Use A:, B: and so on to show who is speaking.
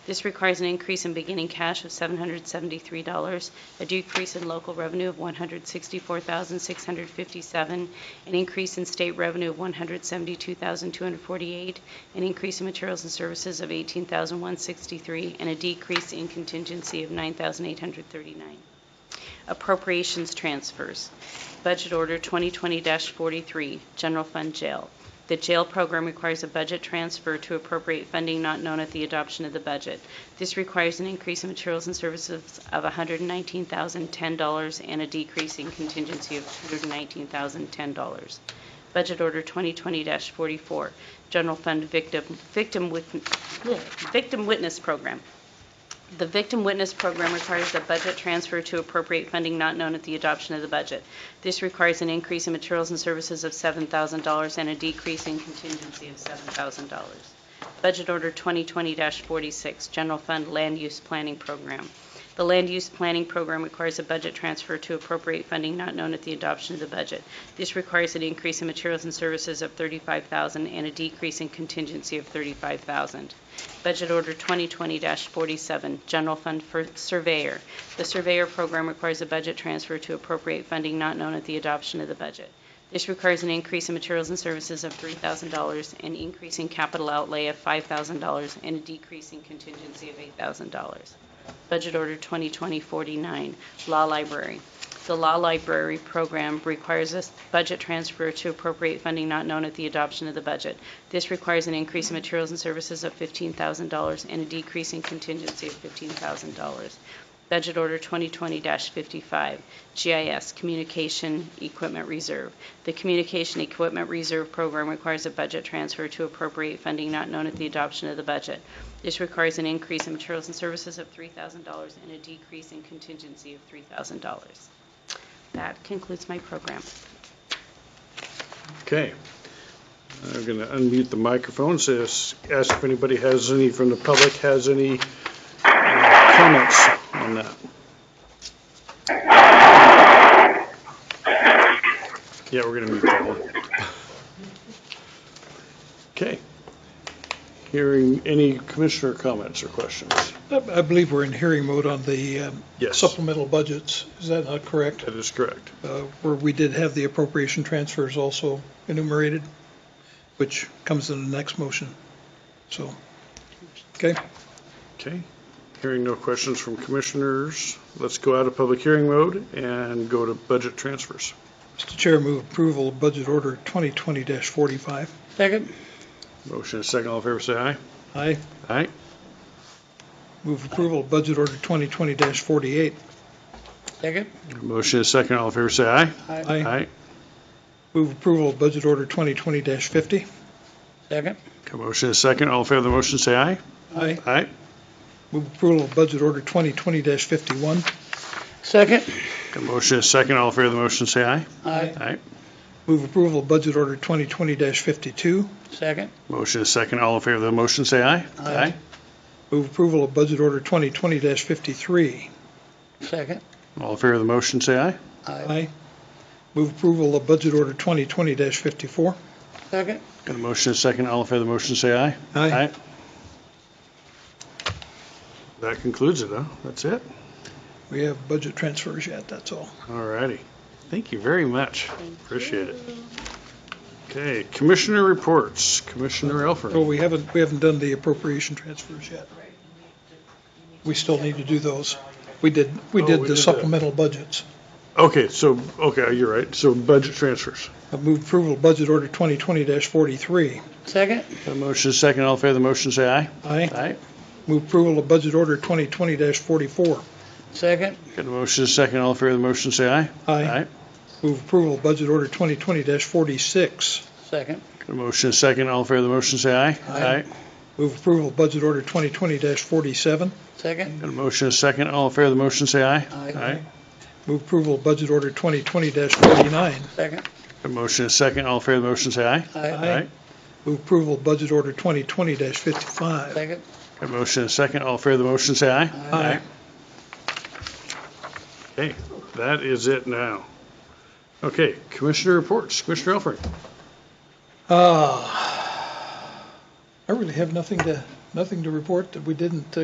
A: This requires an increase in beginning cash of $773, a decrease in local revenue of $164,657, an increase in state revenue of $172,248, an increase in materials and services of $18,163, and a decrease in contingency of $9,839 appropriations transfers. Budget Order 2020-43, General Fund Jail. The jail program requires a budget transfer to appropriate funding not known at the adoption of the budget. This requires an increase in materials and services of $119,010 and a decrease in contingency of $119,010. Budget Order 2020-44, General Fund Victim Victim Wit- Victim Witness Program. The Victim Witness Program requires a budget transfer to appropriate funding not known at the adoption of the budget. This requires an increase in materials and services of $7,000 and a decrease in contingency of $7,000. Budget Order 2020-46, General Fund Land Use Planning Program. The Land Use Planning Program requires a budget transfer to appropriate funding not known at the adoption of the budget. This requires an increase in materials and services of $35,000 and a decrease in contingency of $35,000. Budget Order 2020-47, General Fund for Surveyor. The Surveyor Program requires a budget transfer to appropriate funding not known at the adoption of the budget. This requires an increase in materials and services of $3,000, an increase in capital outlay of $5,000, and a decrease in contingency of $8,000. Budget Order 2020-49, Law Library. The Law Library Program requires a budget transfer to appropriate funding not known at the adoption of the budget. This requires an increase in materials and services of $15,000 and a decrease in contingency of $15,000. Budget Order 2020-55, GIS, Communication Equipment Reserve. The Communication Equipment Reserve Program requires a budget transfer to appropriate funding not known at the adoption of the budget. This requires an increase in materials and services of $3,000 and a decrease in contingency of $3,000. That concludes my program.
B: Okay. I'm going to unmute the microphones, as- ask if anybody has any, from the public, has any uh, comments on that. Yeah, we're going to mute that one. Okay. Hearing any commissioner comments or questions?
C: I I believe we're in hearing mode on the um,
B: Yes.
C: supplemental budgets. Is that not correct?
B: That is correct.
C: Uh, Where we did have the appropriation transfers also enumerated, which comes in the next motion. So, okay,
B: Okay. Hearing no questions from commissioners, let's go out of public hearing mode and go to budget transfers.
C: Mr. Chair, move approval of Budget Order 2020-45.
B: Second. Motion and second, all in favor, say aye.
C: Aye.
B: Aye.
C: Move approval of Budget Order 2020-48.
D: Second?
B: Motion and second, all in favor, say aye. Aye.
C: Move approval of Budget Order 2020-50.
D: Second?
B: Okay, Motion and second, all in favor of the motion, say aye.
C: Aye.
B: Aye.
C: Move approval of Budget Order 2020-51.
D: Second?
B: Okay, Motion and second, all in favor of the motion, say aye.
D: Aye.
B: Aye.
C: Move approval of Budget Order 2020-52.
D: Second?
B: Motion and second, all in favor of the motion, say aye.
D: Aye.
C: Move approval of Budget Order 2020-53.
D: Second?
B: All in favor of the motion, say aye.
C: Aye. Move approval of Budget Order 2020-54.
D: Second?
B: Got a motion and second, all in favor of the motion, say aye.
C: Aye.
B: That concludes it, huh? That's it?
C: We have budget transfers yet, that's all.
B: All righty. Thank you very much. Appreciate it. Okay, commissioner reports. Commissioner Elford.
C: Well, we haven't, we haven't done the appropriation transfers yet. We still need to do those. We did, we
B: Oh,
C: did
B: we
C: the
B: did that.
C: supplemental budgets.
B: Okay, so, okay, you're right. So budget transfers.
C: I move approval of Budget Order 2020-43.
D: Second?
B: Got a motion and a second. All in favor of the motion, say aye.
C: Aye. Move approval of Budget Order 2020-44.
D: Second?
B: Got a motion and a second. All in favor of the motion, say aye.
C: Aye. Move approval of Budget Order 2020-46.
D: Second?
B: Got a motion and a second. All in favor of the motion, say aye.
C: Aye. Move approval of Budget Order 2020-47.
D: Second?
B: Got a motion and a second. All in favor of the motion, say aye.
D: Aye.
C: Move approval of Budget Order 2020-49.
D: Second?
B: Got a motion and a second. All in favor of the motion, say aye.
C: Aye. Move approval of Budget Order 2020-55.
D: Second?
B: Got a motion and a second. All in favor of the motion, say aye. Okay, that is it now. Okay, commissioner reports. Commissioner Elford.
C: Ah, I really have nothing to, nothing to report that we didn't uh,